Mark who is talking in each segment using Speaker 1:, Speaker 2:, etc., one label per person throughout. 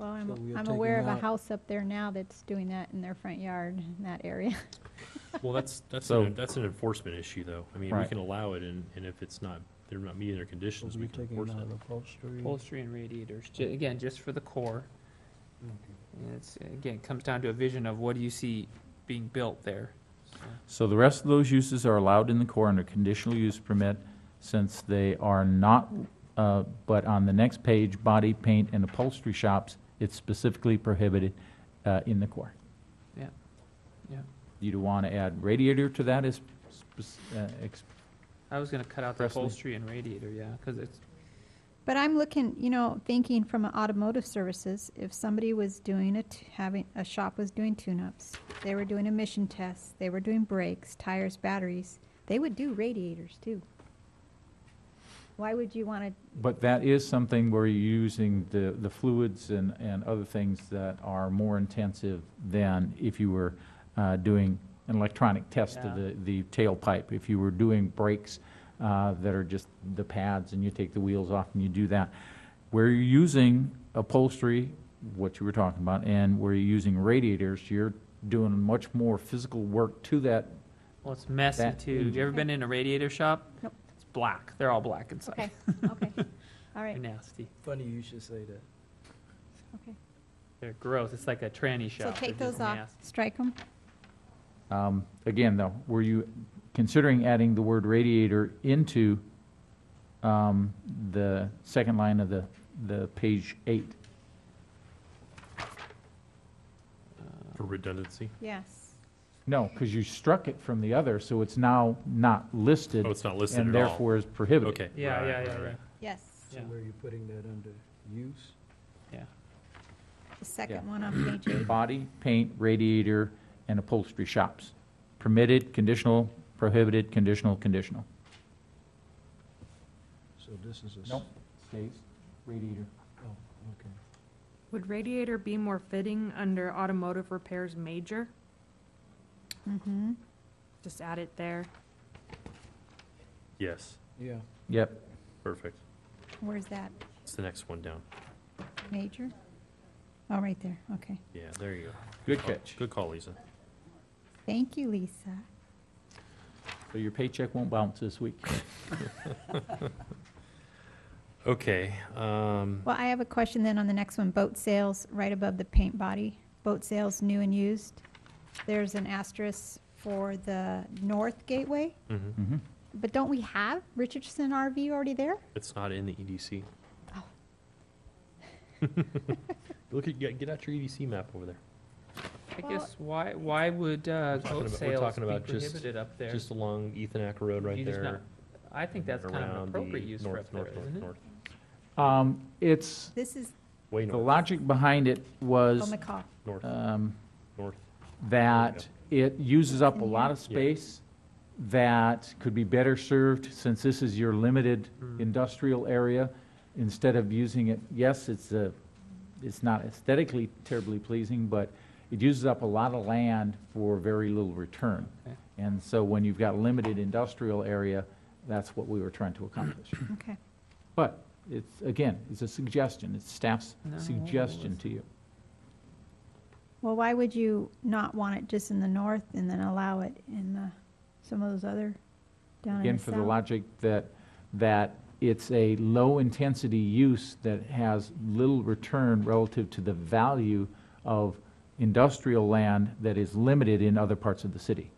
Speaker 1: I'm,
Speaker 2: So we are
Speaker 1: I'm aware of
Speaker 2: taking
Speaker 1: a
Speaker 2: out-
Speaker 1: house up there now that's doing that in their front yard, in that area.
Speaker 3: Well, that's, that's,
Speaker 4: So-
Speaker 3: an- that's an enforcement issue, though. I mean, we
Speaker 4: Right.
Speaker 3: can allow it, and, and if it's not, they're not meeting their
Speaker 2: So
Speaker 3: conditions,
Speaker 2: we're
Speaker 3: we can
Speaker 2: taking
Speaker 3: enforce
Speaker 2: out
Speaker 3: it.
Speaker 2: upholstery.
Speaker 5: upholstery and radiators, ju- again, just for the core. And it's, again, it comes down to a vision of what do you see being built there. So,
Speaker 4: So the rest of those uses are allowed in the core under conditional use permit since they are not, uh, but on the next page, body paint and upholstery shops, it's specifically prohibited uh, in the core.
Speaker 5: Yeah. Yeah.
Speaker 4: You'd want to add radiator to that as, spec- uh, ex-
Speaker 5: I was gonna cut out the
Speaker 4: Presley?
Speaker 5: upholstery and radiator, yeah, cause it's,
Speaker 1: But I'm looking, you know, thinking from an automotive services, if somebody was doing a, t- having, a shop was doing tune-ups, they were doing emission tests, they were doing brakes, tires, batteries, they would do radiators too. Why would you wanna,
Speaker 4: But that is something where you're using the, the fluids and, and other things that are more intensive than if you were uh, doing an electronic test of
Speaker 5: Yeah.
Speaker 4: the, the tailpipe. If you were doing brakes uh, that are just the pads and you take the wheels off and you do that. Where you're using upholstery, what you were talking about, and where you're using radiators, you're doing much more physical work to that.
Speaker 5: well, it's messy
Speaker 4: That-
Speaker 5: too. You ever
Speaker 1: Okay.
Speaker 5: been in a radiator shop?
Speaker 1: Nope.
Speaker 5: It's black, they're all black inside,
Speaker 1: okay, okay, all
Speaker 5: they're
Speaker 1: right,
Speaker 5: nasty,
Speaker 2: Funny you should say that.
Speaker 1: okay.
Speaker 5: they're gross, it's like a tranny
Speaker 1: So
Speaker 5: shop. They're
Speaker 1: take
Speaker 5: just
Speaker 1: those off,
Speaker 5: nasty.
Speaker 1: strike them,
Speaker 4: Um, Again, though, were you considering adding the word radiator into um, the second line of the, the page eight?
Speaker 3: For redundancy?
Speaker 1: yes.
Speaker 4: No, because you struck it from the other, so it's now not listed
Speaker 3: Oh, it's not listed
Speaker 4: and
Speaker 3: at all?
Speaker 4: therefore is prohibited.
Speaker 3: Okay.
Speaker 5: Yeah,
Speaker 3: right,
Speaker 5: yeah,
Speaker 3: right,
Speaker 5: yeah,
Speaker 3: right.
Speaker 5: yeah.
Speaker 1: Yes,
Speaker 2: So
Speaker 5: Yeah.
Speaker 2: where are you putting that under use?
Speaker 1: the second one on page eight.
Speaker 4: Body, paint, radiator, and upholstery shops. Permitted, conditional, prohibited, conditional, conditional.
Speaker 2: So this is a. s-
Speaker 4: Nope. Stays radiator.
Speaker 2: Oh, okay.
Speaker 6: Would radiator be more fitting under automotive repairs major?
Speaker 1: Mm-hmm.
Speaker 6: Just add it there.
Speaker 3: Yes,
Speaker 2: Yeah.
Speaker 4: Yep.
Speaker 3: perfect.
Speaker 1: Where's that,
Speaker 3: It's the next one down.
Speaker 1: major? Oh, right there, okay.
Speaker 3: Yeah, there you go.
Speaker 4: Good
Speaker 3: call-
Speaker 4: catch.
Speaker 3: Good call, Lisa.
Speaker 1: Thank you, Lisa.
Speaker 4: So your paycheck won't bounce this week.
Speaker 3: Okay, um,
Speaker 1: Well, I have a question then on the next one, boat sales, right above the paint body, boat sales, new and used. There's an asterisk for the north gateway,
Speaker 3: mhm.
Speaker 2: Mm-hmm.
Speaker 4: Mhm.
Speaker 1: but don't we have Richardson RV already there?
Speaker 3: it's not in the E EDC.
Speaker 1: Oh.
Speaker 3: Look at, get get out your EDC map over there,
Speaker 5: I
Speaker 1: Well-
Speaker 5: guess, why, why would, uh,
Speaker 3: talking
Speaker 5: goat
Speaker 3: about- we're
Speaker 5: sales be
Speaker 3: talking about just-
Speaker 5: prohibited up there?
Speaker 3: just along Ethanac Road right
Speaker 5: You just not-
Speaker 3: there.
Speaker 5: I think that's kind of
Speaker 3: around
Speaker 5: an
Speaker 3: the
Speaker 5: appropriate use for
Speaker 3: north,
Speaker 5: up there,
Speaker 3: north, north,
Speaker 5: isn't it?
Speaker 3: north.
Speaker 4: Um, It's,
Speaker 1: This is
Speaker 3: Way
Speaker 4: The
Speaker 3: north,
Speaker 4: logic behind it
Speaker 1: Bill
Speaker 4: was
Speaker 1: McCall.
Speaker 3: north,
Speaker 4: um,
Speaker 3: north.
Speaker 4: that it uses up a
Speaker 1: In
Speaker 4: lot of
Speaker 3: here? Yeah.
Speaker 4: space that could be better served, since this is your limited
Speaker 5: Mm.
Speaker 4: industrial area, instead of using it, yes, it's a, it's not aesthetically terribly pleasing, but it uses up a lot of land for very little return.
Speaker 5: Okay.
Speaker 4: And so when you've got limited industrial area, that's what we were trying to accomplish.
Speaker 1: Okay,
Speaker 4: But it's, again, it's a suggestion, it's staff's
Speaker 5: No,
Speaker 4: suggestion
Speaker 5: it's-
Speaker 4: to you.
Speaker 1: well, why would you not want it just in the north and then allow it in the, some of those other down in
Speaker 4: Again,
Speaker 1: the
Speaker 4: for the
Speaker 1: south?
Speaker 4: logic that, that it's a low-intensity use that has little return relative to the value of industrial land that is limited in other parts of the city.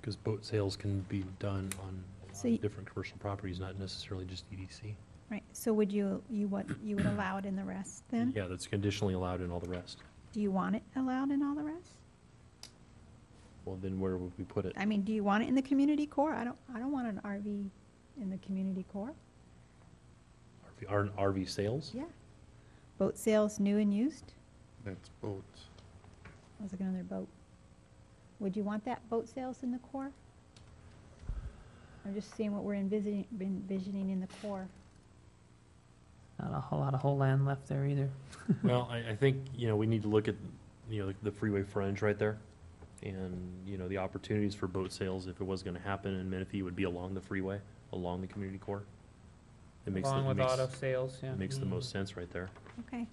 Speaker 3: Because boat sales can be done on a lot
Speaker 1: So
Speaker 3: of
Speaker 1: y-
Speaker 3: different commercial properties, not necessarily just E EDC.
Speaker 1: Right, so would you, you what, you would allow it in the rest then?
Speaker 3: Yeah, that's conditionally allowed in all the rest.
Speaker 1: Do you want it allowed in all the rest?
Speaker 3: Well, then where would we put it?
Speaker 1: I mean, do you want it in the community core? I don't, I don't want an RV in the community core.
Speaker 3: RV R- RV sales?
Speaker 1: Yeah. Boat sales, new and used?
Speaker 7: That's boats.
Speaker 1: I was looking on their boat. Would you want that boat sales in the core? I'm just seeing what we're envisioning, envisioning in the core.
Speaker 5: Not a whole lot of whole land left there either.
Speaker 3: Well, I, I think, you know, we need to look at, you know, the freeway fringe right there. And, you know, the opportunities for boat sales, if it was gonna happen in Menifee, would be along the freeway, along the community core. It makes, the-
Speaker 5: Along
Speaker 3: it
Speaker 5: with auto
Speaker 3: makes,
Speaker 5: sales, yeah.
Speaker 3: Mm. it makes the most sense right there.
Speaker 1: Okay.